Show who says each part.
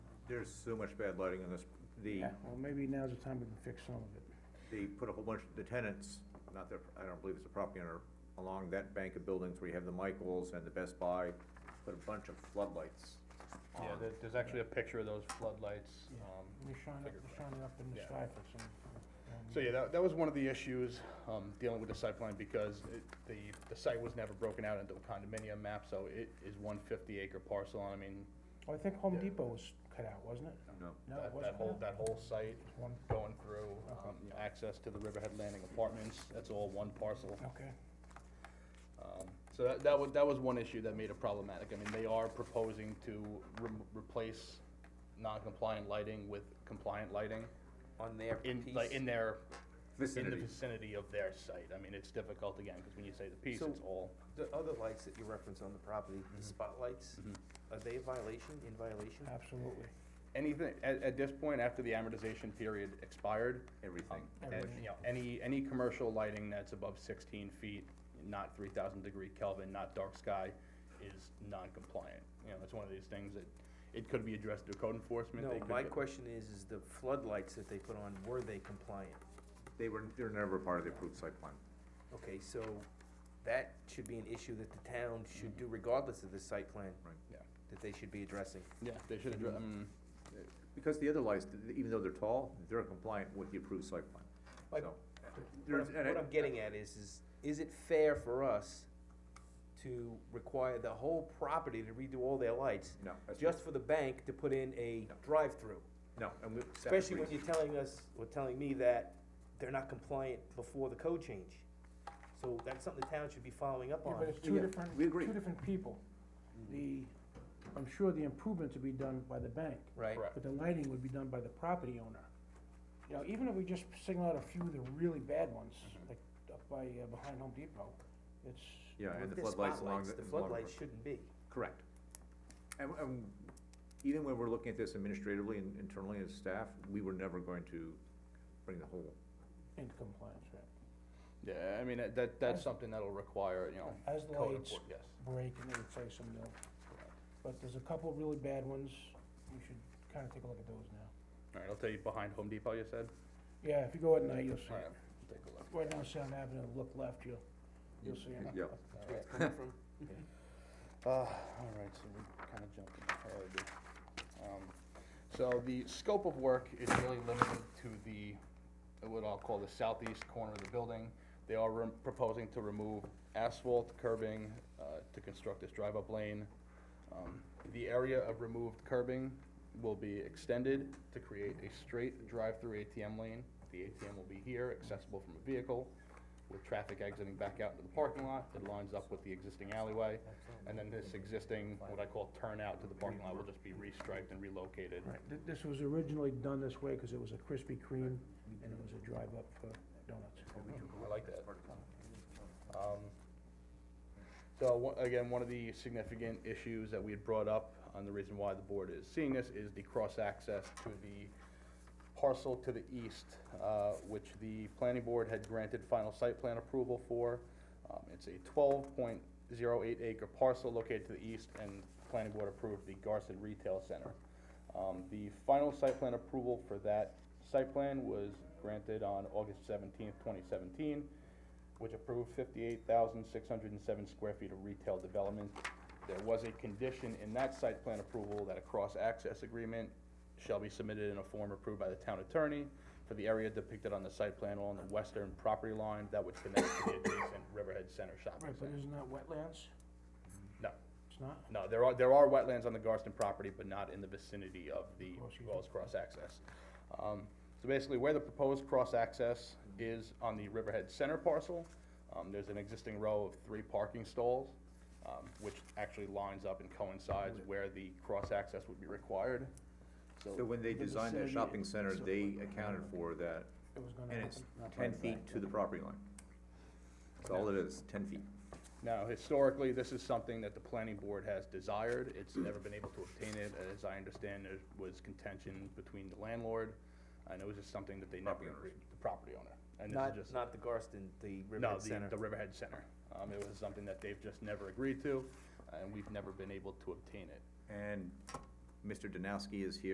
Speaker 1: There's so much bad lighting in this, the,
Speaker 2: Yeah, well, maybe now's the time we can fix some of it.
Speaker 1: they put a whole bunch, the tenants, not their, I don't believe it's a property owner, along that bank of buildings where you have the Michaels and the Best Buy, put a bunch of floodlights on.
Speaker 3: Um, Yeah, there, there's actually a picture of those floodlights,
Speaker 2: Yeah.
Speaker 3: um,
Speaker 2: They're shining,
Speaker 3: figure
Speaker 2: they're
Speaker 3: it
Speaker 2: shining up in the
Speaker 3: Yeah.
Speaker 2: sky for some.
Speaker 3: So yeah, that, that was one of the issues, um, dealing with the site plan because it, the, the site was never broken out into a condominium map, so it is one fifty acre parcel, and I mean,
Speaker 2: Well, I think Home
Speaker 3: Yeah.
Speaker 2: Depot was cut out, wasn't it?
Speaker 1: No,
Speaker 2: No, it
Speaker 3: that, that
Speaker 2: wasn't Uh-huh. cut
Speaker 3: whole,
Speaker 2: out.
Speaker 3: that whole site
Speaker 2: It's one,
Speaker 3: going through,
Speaker 2: Okay.
Speaker 3: um, access to the Riverhead Landing Apartments, that's all one parcel.
Speaker 2: okay.
Speaker 3: Um, So that, that was, that was one issue that made it problematic. I mean, they are proposing to rem- replace non-compliant lighting with compliant lighting
Speaker 4: on their
Speaker 3: in,
Speaker 4: piece.
Speaker 3: like, in their, in the
Speaker 1: vicinity.
Speaker 3: vicinity of their site. I mean, it's difficult again, because when you say the piece,
Speaker 4: So-
Speaker 3: it's all.
Speaker 4: The other lights that you reference on the property, the spotlights, are they a violation, in violation?
Speaker 2: Absolutely.
Speaker 3: Anything, at, at this point, after the amortization period expired.
Speaker 1: Everything.
Speaker 3: um, And,
Speaker 2: Everything.
Speaker 3: you know, any, any commercial lighting that's above sixteen feet, not three thousand degree Kelvin, not dark sky, is non-compliant. You know, that's one of these things that, it could be addressed through code enforcement.
Speaker 4: No,
Speaker 3: they could
Speaker 4: my
Speaker 3: get-
Speaker 4: question is, is the floodlights that they put on, were they compliant?
Speaker 1: They were, they were never part of the approved site plan.
Speaker 4: Okay, so that should be an issue that the town should do regardless of the site plan,
Speaker 3: Yeah,
Speaker 4: that they should be addressing.
Speaker 3: yeah, they should address, I mean,
Speaker 1: Uh, Because the other lights, th- even though they're tall, they're compliant with the approved site plan,
Speaker 4: But-
Speaker 1: so.
Speaker 4: What
Speaker 1: there's-
Speaker 4: I'm,
Speaker 1: and
Speaker 3: e-
Speaker 4: what
Speaker 1: I-
Speaker 4: I'm getting at is, is, is it fair for us to require the whole property to redo all their lights?
Speaker 1: No, that's-
Speaker 4: Just for the bank to put in a drive-through?
Speaker 1: No, and we. that
Speaker 4: Especially when
Speaker 1: agrees.
Speaker 4: you're telling us, or telling me that they're not compliant before the code change. So that's something the town should be following up
Speaker 2: Yeah,
Speaker 4: on.
Speaker 2: but it's two
Speaker 1: yeah,
Speaker 2: different,
Speaker 1: we agree.
Speaker 2: two different people.
Speaker 3: Mm-hmm.
Speaker 2: The, I'm sure the improvements would be done by the bank.
Speaker 4: Right.
Speaker 3: Correct.
Speaker 2: But the lighting would be done by the property owner. You know, even if we just single out a few of the really bad ones,
Speaker 3: Mm-hmm.
Speaker 2: like up by, uh, behind Home Depot, it's,
Speaker 1: Yeah,
Speaker 4: With
Speaker 1: and the
Speaker 4: their
Speaker 1: floodlights along the.
Speaker 4: spotlights, The
Speaker 1: along the-
Speaker 4: floodlights shouldn't be.
Speaker 1: Correct. And, and even when we're looking at this administratively and internally as staff, we were never going to bring the whole,
Speaker 2: in compliance, right?
Speaker 3: yeah, I mean, that- that, that's something that'll require, you know,
Speaker 2: As the
Speaker 3: code
Speaker 2: lights
Speaker 3: enforcement, yes.
Speaker 2: break and they replace them, they'll, but there's a couple of really bad ones, we should kinda take a look at those now.
Speaker 3: All right, I'll tell you behind Home Depot, you said?
Speaker 2: Yeah, if you go at night, you'll see
Speaker 3: All right,
Speaker 2: it.
Speaker 3: take a look.
Speaker 2: Right down Sound Avenue, look left, you'll, you'll see it.
Speaker 1: yeah.
Speaker 4: That's where it's coming from.
Speaker 3: Uh, all right, so we kind of jumped ahead. Um, So the scope of work is really limited to the, what I'll call the southeast corner of the building. They are rem- proposing to remove asphalt curbing uh, to construct this drive-up lane. Um, The area of removed curbing will be extended to create a straight drive-through ATM lane. The ATM will be here, accessible from a vehicle, with traffic exiting back out into the parking lot. It lines up with the existing alleyway. And then this existing, what I call turnout to the parking lot, will just be restriped and relocated.
Speaker 2: Right, th- this was originally done this way, cause it was a Krispy Kreme, and it was a drive up for donuts.
Speaker 3: I like that. Um, So, one- again, one of the significant issues that we had brought up, and the reason why the board is seeing this, is the cross-access to the parcel to the east, uh, which the planning board had granted final site plan approval for. Um, It's a twelve point zero eight acre parcel located to the east, and the planning board approved the Garson Retail Center. Um, The final site plan approval for that site plan was granted on August seventeenth, twenty seventeen, which approved fifty-eight thousand six hundred and seven square feet of retail development. There was a condition in that site plan approval that a cross-access agreement shall be submitted in a form approved by the town attorney for the area depicted on the site plan along the western property line that would connect to the adjacent Riverhead Center shopping
Speaker 2: Right, but
Speaker 3: center.
Speaker 2: isn't that wetlands?
Speaker 3: No,
Speaker 2: It's not?
Speaker 3: no, there are, there are wetlands on the Garston property, but not in the vicinity of the
Speaker 2: Of course you
Speaker 3: proposed cross-access. Um, so basically, where the proposed cross-access is on the Riverhead Center parcel, um, there's an existing row of three parking stalls, um, which actually lines up and coincides where the cross-access would be required.
Speaker 1: So when they
Speaker 2: The
Speaker 1: designed that
Speaker 2: vicinity
Speaker 1: shopping center,
Speaker 2: itself,
Speaker 1: they
Speaker 2: like,
Speaker 1: accounted for that,
Speaker 2: It was gonna
Speaker 1: and it's
Speaker 2: happen.
Speaker 1: ten feet to the property line. That's all it is, ten feet.
Speaker 3: Now, historically, this is something that the planning board has desired, it's never been able to obtain it, as I understand, there was contention between the landlord, and it was just something that they never
Speaker 1: Property owners.
Speaker 3: agreed, the property owner. And
Speaker 4: Not,
Speaker 3: this is just,
Speaker 4: not the Garston, the
Speaker 3: no,
Speaker 4: Riverhead
Speaker 3: the,
Speaker 4: Center.
Speaker 3: the Riverhead Center, um, it was something that they've just never agreed to, and we've never been able to obtain it.
Speaker 1: And Mr. Danowski is here